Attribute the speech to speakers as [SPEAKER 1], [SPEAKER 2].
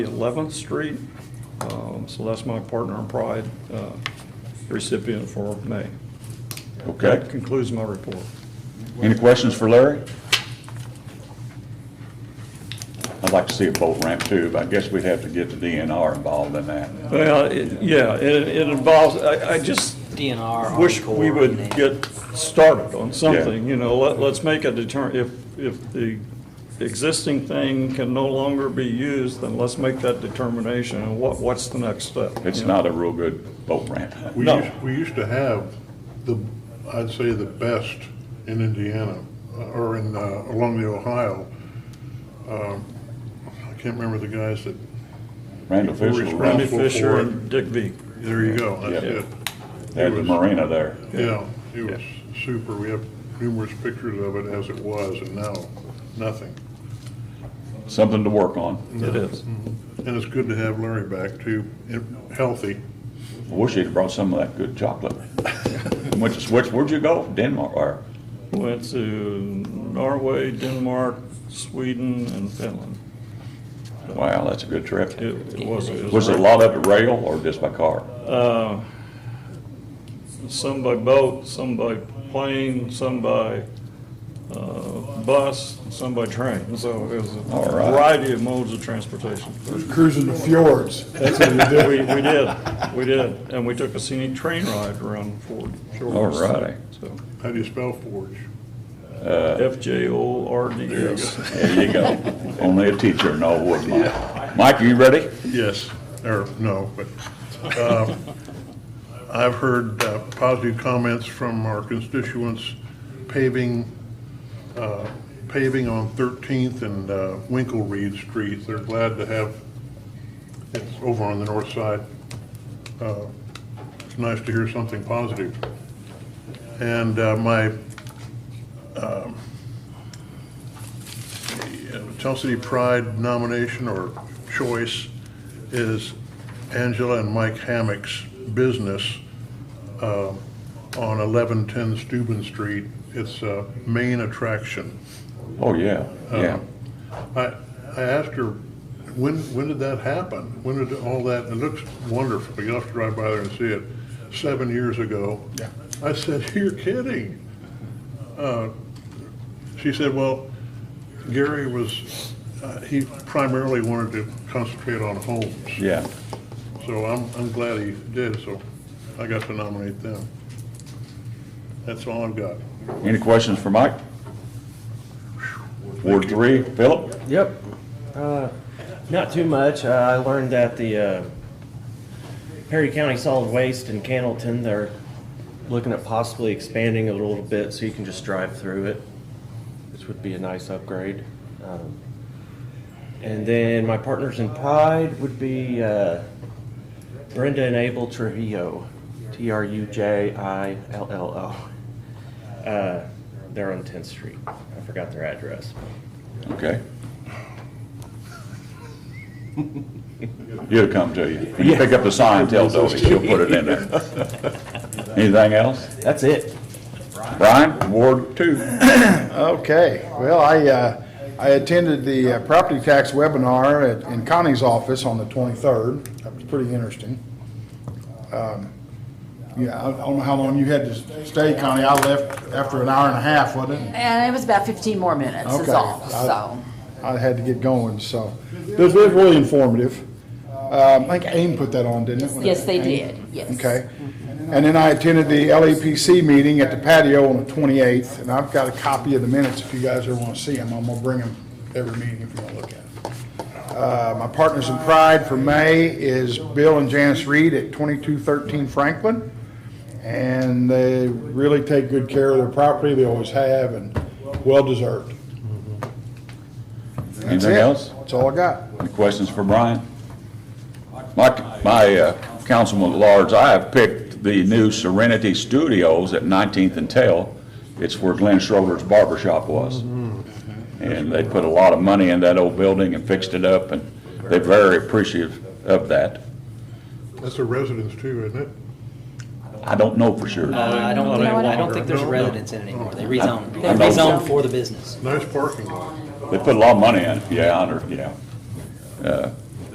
[SPEAKER 1] 11th Street. Um, So that's my Partner in Pride uh, recipient for May.
[SPEAKER 2] Okay.
[SPEAKER 1] That concludes my report.
[SPEAKER 2] Any questions for Larry? I'd like to see a boat ramp too, but I guess we'd have to get the DNR involved in that.
[SPEAKER 1] Well, it- yeah, it it involves, I I just
[SPEAKER 3] DNR.
[SPEAKER 1] wish
[SPEAKER 3] Army
[SPEAKER 1] we
[SPEAKER 3] Corps,
[SPEAKER 1] would
[SPEAKER 3] and-
[SPEAKER 1] get started on something, you know, let- let's make a deter, if, if the existing thing can no longer be used, then let's make that determination, and what, what's the next step? you
[SPEAKER 2] It's
[SPEAKER 1] know?
[SPEAKER 2] not a real good boat ramp.
[SPEAKER 4] We
[SPEAKER 2] No.
[SPEAKER 4] used, we used to have the, I'd say the best in Indiana, uh, or in, uh, along the Ohio. Um, I can't remember the guys that,
[SPEAKER 2] Randall Fisher,
[SPEAKER 4] Randy
[SPEAKER 1] Randy
[SPEAKER 2] was-
[SPEAKER 4] Full
[SPEAKER 1] Fisher
[SPEAKER 4] forward.
[SPEAKER 1] and Dick Veek.
[SPEAKER 4] there you go, that's
[SPEAKER 2] Yeah.
[SPEAKER 4] it.
[SPEAKER 2] they had the marina there.
[SPEAKER 4] Yeah, it was super. We have numerous pictures of it as it was, and now, nothing.
[SPEAKER 2] Something to work on.
[SPEAKER 1] It is.
[SPEAKER 4] And it's good to have Larry back too, and healthy.
[SPEAKER 2] I Wish he'd brought some of that good chocolate. Went to switch, where'd you go? Denmark or
[SPEAKER 1] Went to Norway, Denmark, Sweden, and Finland.
[SPEAKER 2] Wow, that's a good trip.
[SPEAKER 1] It it was.
[SPEAKER 2] Was it a lot of it rail or just by car?
[SPEAKER 1] Uh, Some by boat, some by plane, some by uh, bus, some by train. So it was a
[SPEAKER 2] All right.
[SPEAKER 1] variety of modes of transportation.
[SPEAKER 5] Cruising the fjords, that's what you do.
[SPEAKER 1] We we did, we did. And we took a scenic train ride around Ford Shores.
[SPEAKER 2] All righty.
[SPEAKER 1] So
[SPEAKER 4] How do you spell forge?
[SPEAKER 1] FJORDS.
[SPEAKER 2] Uh, There you go. Only a teacher knows what, Mike. Mike, are you ready?
[SPEAKER 4] Yes, or no, but um, I've heard uh, positive comments from our constituents paving, uh, paving on 13th and uh, Winkle Reed Street. They're glad to have, it's over on the north side. Uh, It's nice to hear something positive. And uh, my Tell City Pride nomination or choice is Angela and Mike Hammock's business uh, on 1110 Steuben Street. It's a main attraction.
[SPEAKER 2] Oh, yeah, yeah.
[SPEAKER 4] I, I asked her, when, when did that happen? When did all that, it looks wonderful, you'll have to drive by there and see it, seven years ago. Yeah. I said, you're kidding. Uh, She said, well, Gary was, uh, he primarily wanted to concentrate on homes.
[SPEAKER 2] Yeah,
[SPEAKER 4] So I'm, I'm glad he did, so I got to nominate them. That's all I've got.
[SPEAKER 2] any questions for Mike? Ward three, Philip?
[SPEAKER 6] Yep. Uh, Not too much. Uh, I learned that the uh, Perry County Solid Waste in Candleton, they're looking at possibly expanding it a little bit so you can just drive through it, which would be a nice upgrade. Um, And then my partners in pride would be uh, Brenda and Abel Trujillo, T-R-U-J-I-L-L-O. Uh, They're on 10th Street. I forgot their address.
[SPEAKER 2] Okay. He'll come to you. You pick up the sign, tell Dodie, she'll put it in there. Anything else?
[SPEAKER 6] That's it.
[SPEAKER 2] Brian, Ward two.
[SPEAKER 5] Okay, well, I, uh, I attended the uh, property tax webinar at- in Connie's office on the 23rd. That was pretty interesting. Um, Yeah, I I don't know how long you had to stay, Connie. I left after an hour and a half, wasn't it?
[SPEAKER 7] And it was about 15 more minutes, is
[SPEAKER 5] Okay.
[SPEAKER 7] all,
[SPEAKER 5] I-
[SPEAKER 7] so.
[SPEAKER 5] I had to get going, so. It was it was really informative. Um, I think AIM put that on, didn't it?
[SPEAKER 7] Yes, they
[SPEAKER 5] AIM?
[SPEAKER 7] did, yes.
[SPEAKER 5] Okay. And then I attended the LAPC meeting at the patio on the 28th, and I've got a copy of the minutes if you guys ever want to see them. I'm going to bring them every meeting if you want to look at them. Uh, My Partners in Pride for May is Bill and Janice Reed at 2213 Franklin. And they really take good care of their property, they always have, and well-deserved. That's
[SPEAKER 2] Anything
[SPEAKER 5] it.
[SPEAKER 2] else?
[SPEAKER 5] That's all I got.
[SPEAKER 2] Any questions for Brian? My, my uh, councilman at large, I have picked the new Serenity Studios at 19th and Tail. It's where Glenn Schroeder's barber shop was. And they put a lot of money in that old building and fixed it up, and they're very appreciative of that.
[SPEAKER 4] That's the residents too, isn't it?
[SPEAKER 2] I don't know for sure.
[SPEAKER 3] Uh, I don't, think-
[SPEAKER 7] No, I
[SPEAKER 3] I
[SPEAKER 7] don't.
[SPEAKER 3] don't think there's
[SPEAKER 4] No, no.
[SPEAKER 3] residents in it anymore. They rezoned. They
[SPEAKER 2] I know.
[SPEAKER 3] rezoned for the business.
[SPEAKER 4] Nice parking lot.
[SPEAKER 2] They put a lot of money in, it. yeah, I under, yeah. Uh,